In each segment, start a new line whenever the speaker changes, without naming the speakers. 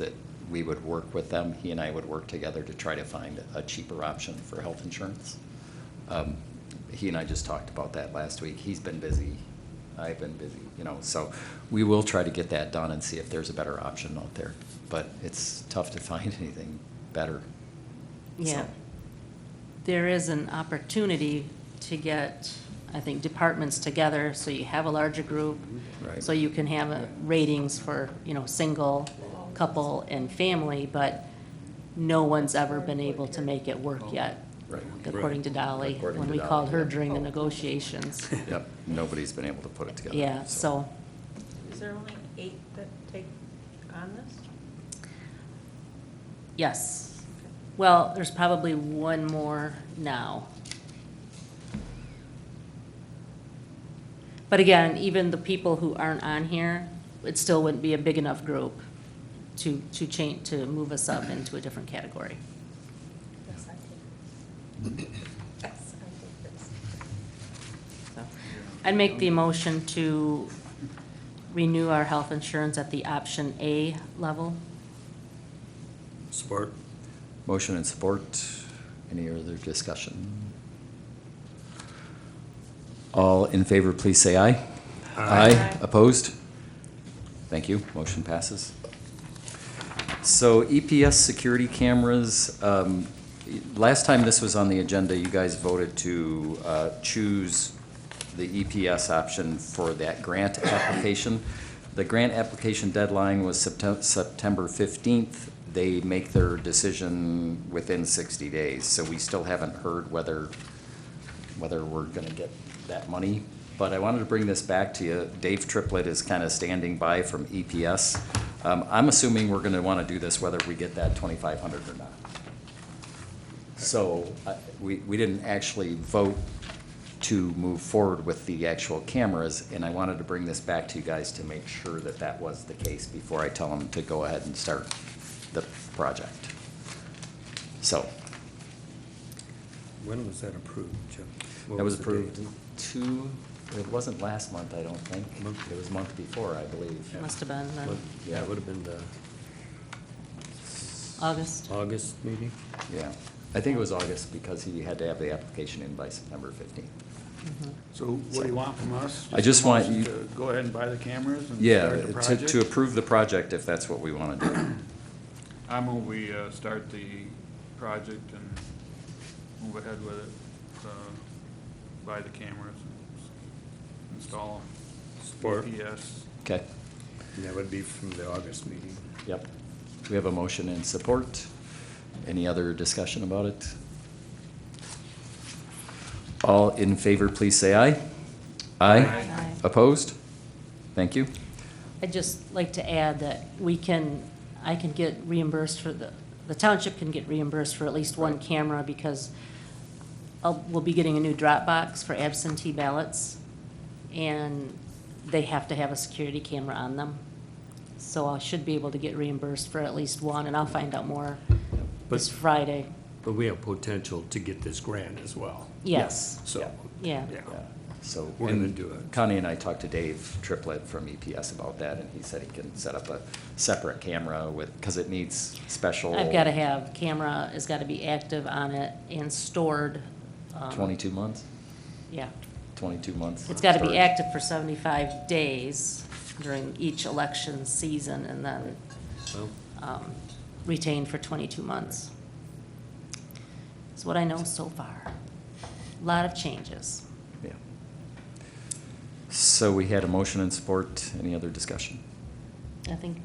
that we would work with them, he and I would work together to try to find a cheaper option for health insurance. Um, He and I just talked about that last week. He's been busy, I've been busy, you know, so we will try to get that done and see if there's a better option out there. But it's tough to find anything better.
Yeah.
So-
There is an opportunity to get, I think, departments together, so you have a larger group.
Right.
So you can have uh, ratings for, you know, single, couple, and family, but no one's ever been able to make it work yet,
Oh. Right.
according to Dolly,
According
when
to
we called
Dolly,
her
yeah.
during the negotiations.
Yep, nobody's been able to put it together.
Yeah, so,
Is there only eight that take on this?
yes. Well, there's probably one more now. But again, even the people who aren't on here, it still wouldn't be a big enough group to, to change, to move us up into a different category.
Yes, I did. Yes, I did this.
So, I'd make the motion to renew our health insurance at the option A level.
Support.
Motion and support. Any other discussion? All in favor, please say aye.
Aye.
Opposed? Thank you. Motion passes. So EPS security cameras, um, last time this was on the agenda, you guys voted to uh, choose the EPS option for that grant application. The grant application deadline was Septem- September 15th. They make their decision within 60 days, so we still haven't heard whether, whether we're going to get that money. But I wanted to bring this back to you. Dave Triplett is kind of standing by from EPS. Um, I'm assuming we're going to want to do this whether we get that 2,500 or not. So I- we, we didn't actually vote to move forward with the actual cameras, and I wanted to bring this back to you guys to make sure that that was the case before I tell them to go ahead and start the project. So,
When was that approved, Jim? What
that was
the
approved
date?
two, it wasn't last month, I don't think.
Month.
It was month before, I believe.
Must have been uh,
What- Yeah, it would have been the
August.
August meeting?
Yeah, I think it was August because he had to have the application in by September fifteenth.
mm-hmm.
So what do you want from us?
I just
a
want
motion
you-
to Go ahead and buy the cameras and
Yeah,
start the
to,
project?
to approve the project if that's what we want to do.
I move we uh, start the project and move ahead with it, uh, buy the cameras, install them.
Support.
GPS.
Okay,
And that would be from the August meeting.
yep. We have a motion in support. Any other discussion about it? All in favor, please say aye. Aye.
Aye.
Opposed? Thank you.
I'd just like to add that we can, I can get reimbursed for the, the township can get reimbursed for at least one camera because I'll, we'll be getting a new drop box for absentee ballots and they have to have a security camera on them. So I should be able to get reimbursed for at least one and I'll find out more this
But,
Friday.
but we have potential to get this grant as well.
Yes.
So.
Yeah.
Yeah, So.
We're gonna
and
do it.
Connie and I talked to Dave Triplett from EPS about that, and he said he can set up a separate camera with, because it needs special.
I've gotta have, camera has gotta be active on it and stored. um,
Twenty-two months,
Yeah.
twenty-two months.
It's got to be
storage.
active for 75 days during each election season and then
Well,
um, retained for 22 months. Is what I know so far. Lot of changes.
Yeah. So we had a motion and support. Any other discussion?
I think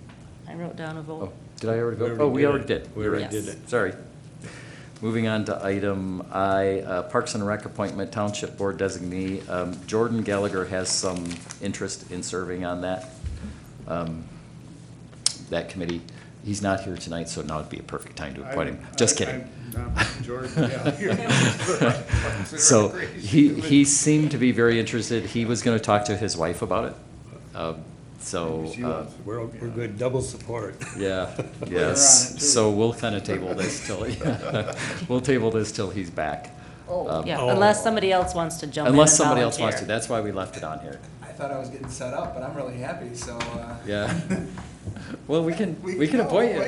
I wrote down a
Oh,
vote.
did I already
We
vote?
already
Oh, we
did
already
it.
did.
We
You're
already
right.
did
it.
Sorry. Moving on to item I, uh, Parks and Rec appointment, Township Board designee. Um, Jordan Gallagher has some interest in serving on that, um, that committee. He's not here tonight, so now would be a perfect time to appoint him.
I'm-
Just
I-
kidding.
I'm not Jordan Gallagher.
So he, he seemed to be very interested. He was going to talk to his wife about it. Um, So.
Maybe she
uh,
wants
We're, we're good, double support.
yeah,
Later on,
yes,
too.
so we'll kind of table this till, we'll table this till he's back. Um,
Yeah,
Oh.
unless somebody else wants to jump in and volunteer.
Unless somebody else wants to, that's why we left it on here,
I thought I was getting set up, but I'm really happy, so. uh,
yeah. Well, we can,
We
we can
can
appoint
all
you.